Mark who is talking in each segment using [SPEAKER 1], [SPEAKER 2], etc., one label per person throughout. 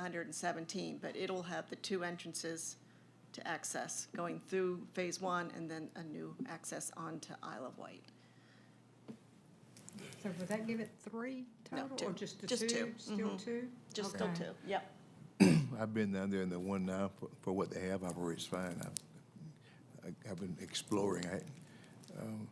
[SPEAKER 1] hundred and seventeen, but it'll have the two entrances to access, going through phase one and then a new access onto Isle of Wight.
[SPEAKER 2] So would that give it three
[SPEAKER 1] No,
[SPEAKER 2] total,
[SPEAKER 1] two.
[SPEAKER 2] or just the
[SPEAKER 1] Just
[SPEAKER 2] two?
[SPEAKER 1] two. Mm-hmm.
[SPEAKER 2] Still two?
[SPEAKER 1] Just still
[SPEAKER 2] Okay.
[SPEAKER 1] two, yep.
[SPEAKER 3] I've been down there in the one now for, for what they have, I've already fine. I've, I- I've been exploring. I, um,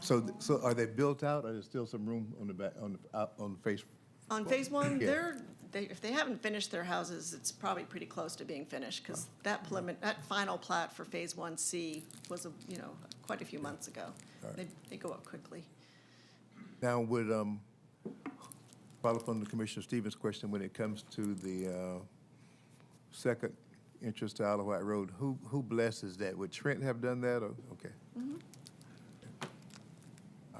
[SPEAKER 3] so, th- so are they built out? Or there's still some room on the back, on the, out, on the face?
[SPEAKER 1] On phase one,
[SPEAKER 3] Yeah.
[SPEAKER 1] they're, they, if they haven't finished their houses, it's probably pretty close to being finished, because that prelimin, that final plat for phase one C was, a you know, quite a few months ago. They, they go up quickly.
[SPEAKER 3] Now, would, um, follow up on the Commissioner Stevens' question, when it comes to the, uh, second entrance to Isle of Wight Road, who, who blesses that? Would Trent have done that, or, okay? All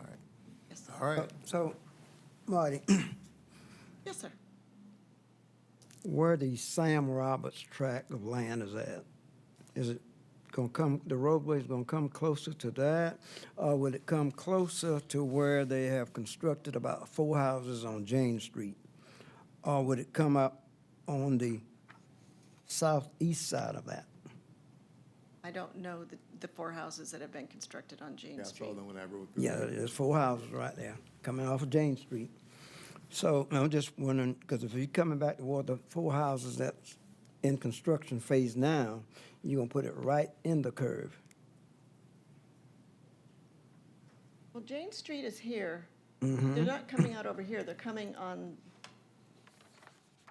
[SPEAKER 3] right,
[SPEAKER 1] Yes,
[SPEAKER 3] all right.
[SPEAKER 4] So, Marty,
[SPEAKER 1] yes, sir.
[SPEAKER 4] where the Sam Roberts tract of land is at, is it gonna come, the roadway's gonna come closer to that? Or will it come closer to where they have constructed about four houses on Jane Street? Or would it come up on the southeast side of that?
[SPEAKER 1] I don't know the, the four houses that have been constructed on Jane
[SPEAKER 3] Yeah, I saw
[SPEAKER 1] Street.
[SPEAKER 3] them when I rode through.
[SPEAKER 4] Yeah,
[SPEAKER 3] there.
[SPEAKER 4] there's four houses right there, coming off of Jane Street. So I'm just wondering, because if you're coming back toward the four houses that's in construction phase now, you're gonna put it right in the curve.
[SPEAKER 1] Well, Jane Street is here. They're not coming out over here, they're coming on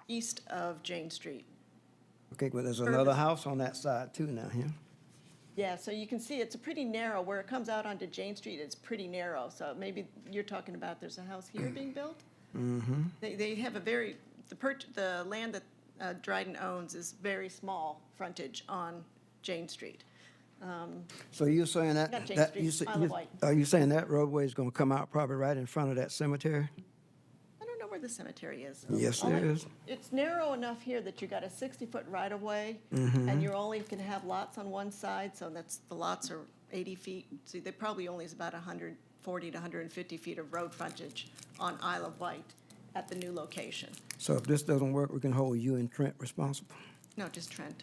[SPEAKER 1] east of Jane Street.
[SPEAKER 4] Okay, well, there's
[SPEAKER 1] Curve
[SPEAKER 4] another
[SPEAKER 1] is-
[SPEAKER 4] house on that side too now, yeah?
[SPEAKER 1] Yeah, so you can see it's a pretty narrow, where it comes out onto Jane Street, it's pretty narrow, so maybe you're talking about there's a house here being built? Mm-hmm. They, they have a very, the perch, the land that uh, Dryden owns is very small frontage on Jane Street.
[SPEAKER 4] So you're saying that,
[SPEAKER 1] Not Jane
[SPEAKER 4] that,
[SPEAKER 1] Street,
[SPEAKER 4] you say,
[SPEAKER 1] Isle of
[SPEAKER 4] you-
[SPEAKER 1] Wight.
[SPEAKER 4] are you saying that roadway is gonna come out probably right in front of that cemetery?
[SPEAKER 1] I don't know where the cemetery is.
[SPEAKER 4] Yes,
[SPEAKER 1] All
[SPEAKER 4] there
[SPEAKER 1] I-
[SPEAKER 4] is.
[SPEAKER 1] It's narrow enough here that you got a sixty-foot right-of-way,
[SPEAKER 4] Mm-hmm.
[SPEAKER 1] and you're only can have lots on one side, so that's, the lots are eighty feet. See, they probably only is about hundred forty to hundred and fifty feet of road frontage on Isle of Wight at the new location.
[SPEAKER 4] So if this doesn't work, we can hold you and Trent responsible.
[SPEAKER 1] No, just Trent.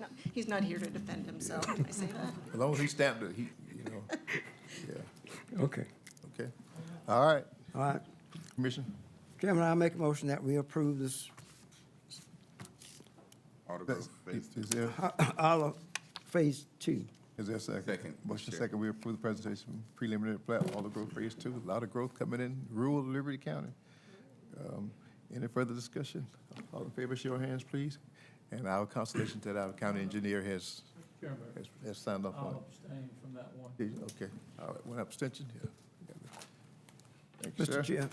[SPEAKER 1] No, He's not here to defend himself, I say that.
[SPEAKER 3] As long as he stamped it, he, you know, yeah,
[SPEAKER 4] Okay.
[SPEAKER 3] okay. All right,
[SPEAKER 4] All right.
[SPEAKER 3] Commissioner?
[SPEAKER 4] Chairman, I make a motion that we approve this
[SPEAKER 5] Auto Grove
[SPEAKER 3] Is
[SPEAKER 5] Phase Two.
[SPEAKER 3] is there,
[SPEAKER 4] all of phase two.
[SPEAKER 3] is there a second?
[SPEAKER 5] Second, Mr.
[SPEAKER 3] Motion
[SPEAKER 5] Chair.
[SPEAKER 3] second, we approve the presentation, preliminary plat, all the growth phase two, a lot of growth coming in rural Liberty County. Um, Any further discussion? All in favor, show your hands, please. And our consultation that our county engineer has,
[SPEAKER 6] Chairman,
[SPEAKER 3] has- has signed off on.
[SPEAKER 6] I'll abstain from that one.
[SPEAKER 3] Did you? Okay, all right, one abstention, yeah. Thank you,
[SPEAKER 4] Mr.
[SPEAKER 3] sir.
[SPEAKER 4] Chair,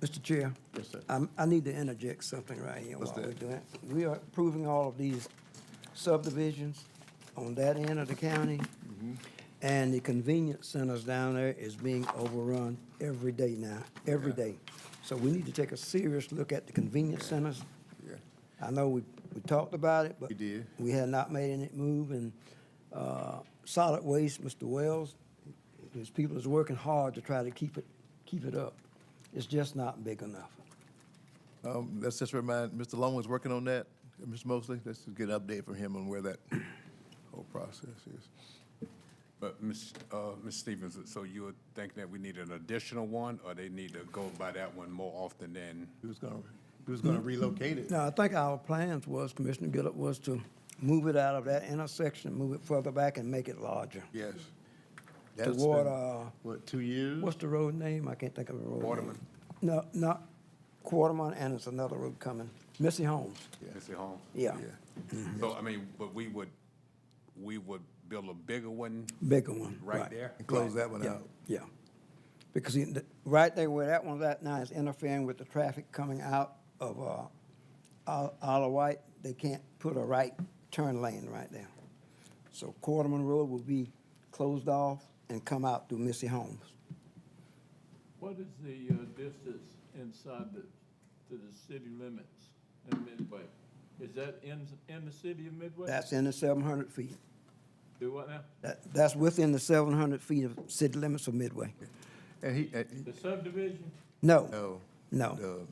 [SPEAKER 4] Mr. Chair.
[SPEAKER 3] Yes, sir.
[SPEAKER 4] I'm- I need to interject something right here
[SPEAKER 3] What's
[SPEAKER 4] while we're
[SPEAKER 3] that?
[SPEAKER 4] doing. it. We are approving all of these subdivisions on that end of the county.
[SPEAKER 3] Mm-hmm.
[SPEAKER 4] And the convenience centers down there is being overrun every day now, every
[SPEAKER 3] Yeah.
[SPEAKER 4] day. So we need to take a serious look at the convenience centers.
[SPEAKER 3] Yeah.
[SPEAKER 4] I know we, we talked about it, but.
[SPEAKER 3] We did.
[SPEAKER 4] We had not made any move, and, uh, solid waste, Mr. Wells, his people is working hard to try to keep it, keep it up. It's just not big enough.
[SPEAKER 3] Um, let's just remind, Mr. Long was working on that, and Mr. Mosley, let's just get an update from him on where that whole process is.
[SPEAKER 5] But Ms., uh, Ms. Stevens, so you would think that we need an additional one, or they need to go by that one more often than?
[SPEAKER 3] He was gonna, he was gonna relocate it.
[SPEAKER 4] Now, I think our plans was, Commissioner Gillett, was to move it out of that intersection, move it further back and make it larger.
[SPEAKER 3] Yes. That's
[SPEAKER 4] Toward,
[SPEAKER 3] been,
[SPEAKER 4] uh,
[SPEAKER 3] What, two years?
[SPEAKER 4] what's the road name? I can't think of the road. name.
[SPEAKER 5] Quarterman.
[SPEAKER 4] No, not Quarterman, and it's another road coming, Missy Holmes,
[SPEAKER 5] Mr. Holmes?
[SPEAKER 4] yeah,
[SPEAKER 5] So, I mean, but we would, we would build a bigger one
[SPEAKER 4] bigger one.
[SPEAKER 5] right there?
[SPEAKER 3] And close that one
[SPEAKER 4] Yeah,
[SPEAKER 3] out.
[SPEAKER 4] Yeah, because in the- right there where that one's at now is interfering with the traffic coming out of uh, Isle Isle of Wight. They can't put a right turn lane right there. So Quarterman Road will be closed off and come out through Missy Homes.
[SPEAKER 6] What is the uh, distance inside the, to the city limits in Midway? Is that in, in the city of Midway?
[SPEAKER 4] That's in the seven hundred feet.
[SPEAKER 6] Do what now?
[SPEAKER 4] That, that's within the seven hundred feet of city limits of Midway.
[SPEAKER 3] And he, and he-
[SPEAKER 6] The subdivision?
[SPEAKER 4] No,
[SPEAKER 3] no,
[SPEAKER 4] No.
[SPEAKER 3] the